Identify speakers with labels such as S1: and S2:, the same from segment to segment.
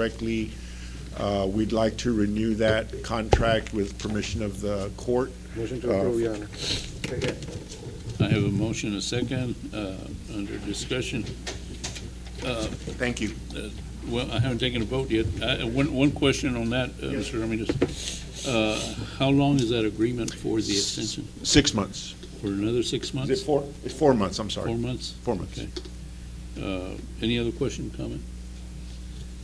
S1: correctly, uh, we'd like to renew that contract with permission of the court.
S2: Motion
S1: Uh,
S2: to approve, Your Honor.
S3: I have a motion, a second, uh, under discussion.
S1: Thank you.
S3: Well, I haven't taken a vote yet. I- uh, One, one question on that, uh,
S1: Yes,
S3: Mr. Ramirez. Uh, How long is that agreement for the extension?
S1: Six months.
S3: For another six
S1: Is it
S3: months?
S1: four? It's four months, I'm
S3: Four
S1: sorry.
S3: months?
S1: Four months.
S3: Okay. Uh, Any other question, comment?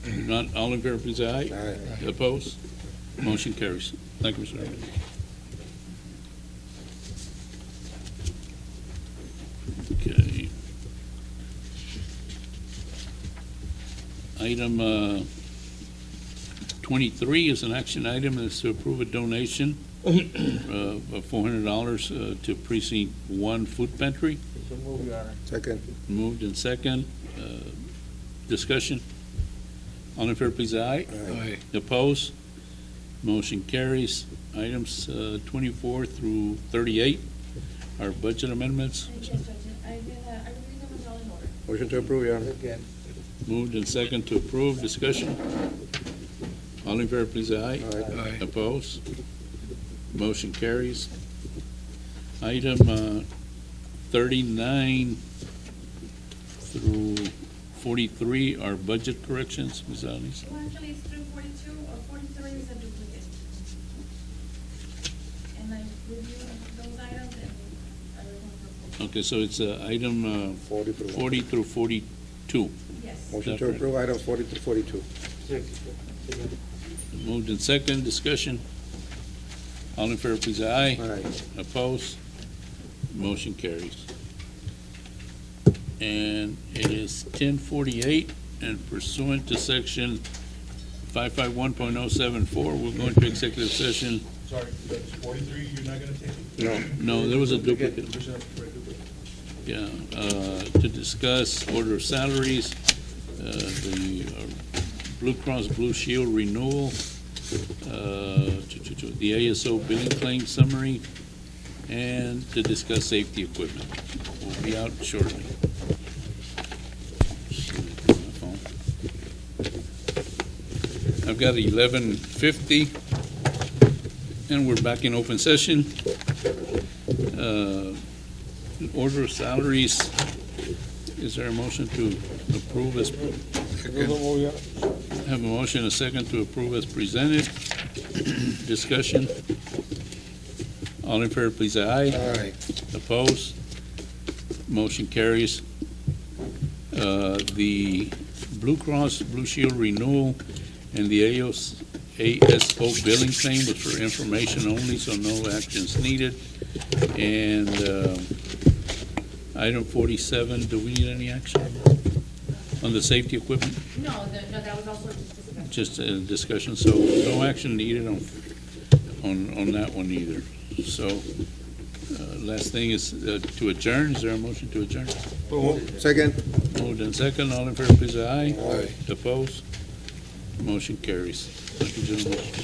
S3: If Not, all in favor, please, aye.
S2: Aye.
S3: Opposed? Motion carries. Thank you, Mr. Ramirez. Okay. Item uh, 23 is an action item, is to approve a donation uh, of $400 uh, to Precinct 1 Food Pantry.
S2: Second.
S3: Moved and second. Uh, Discussion. All in favor, please, say aye.
S2: Aye.
S3: Opposed? Motion carries. Items uh, 24 through 38 are budget amendments.
S4: Yes, Judge, I did, uh, I reviewed them as all in order.
S2: Motion to approve, Your Honor.
S3: Moved and second to approve. Discussion. All in favor, please, say aye.
S2: Aye.
S3: Opposed? Motion carries. Item uh, 39 through 43 are budget corrections, Ms. Alves.
S4: Well, actually, it's through forty-two, or forty-three is a duplicate. And I reviewed those items and I recommend
S3: Okay, so it's uh, item
S2: Forty
S3: uh,
S2: through.
S3: 40 through 42.
S4: approval. Yes.
S2: Motion to approve item forty through forty-two.
S3: Moved in second, discussion. All in favor, please, aye.
S2: Aye.
S3: Opposed? Motion carries. And it is ten forty-eight, and pursuant to section five-five-one point oh-seven-four, we're going to executive session.
S5: Sorry, that's forty-three, you're not gonna take it?
S3: No, there was a duplicate,
S5: Commissioner, for a duplicate.
S3: yeah, uh, to discuss order of salaries, uh, the uh, Blue Cross Blue Shield renewal, uh, to- to- to- the ASO billing claim summary, and to discuss safety equipment. We'll be out shortly. I've got eleven fifty, and we're back in open session. Uh, Order of salaries, is there a motion to approve as? Have a motion, a second to approve as presented. Discussion. All in favor, please, say aye.
S2: Aye.
S3: Opposed? Motion carries. Uh, The Blue Cross Blue Shield renewal and the AOS ASO billing claim was for information only, so no actions needed. And um, item 47, do we need any action on the safety equipment?
S4: No, the- no, that was also just discussed.
S3: Just a discussion, so no action needed on, on, on that one either. So, uh, last thing is uh, to adjourn, is there a motion to adjourn?
S2: Second.
S3: Moved and second, all in favor, please, say aye.
S2: Aye.
S3: Opposed? Motion carries. Thank you, gentlemen.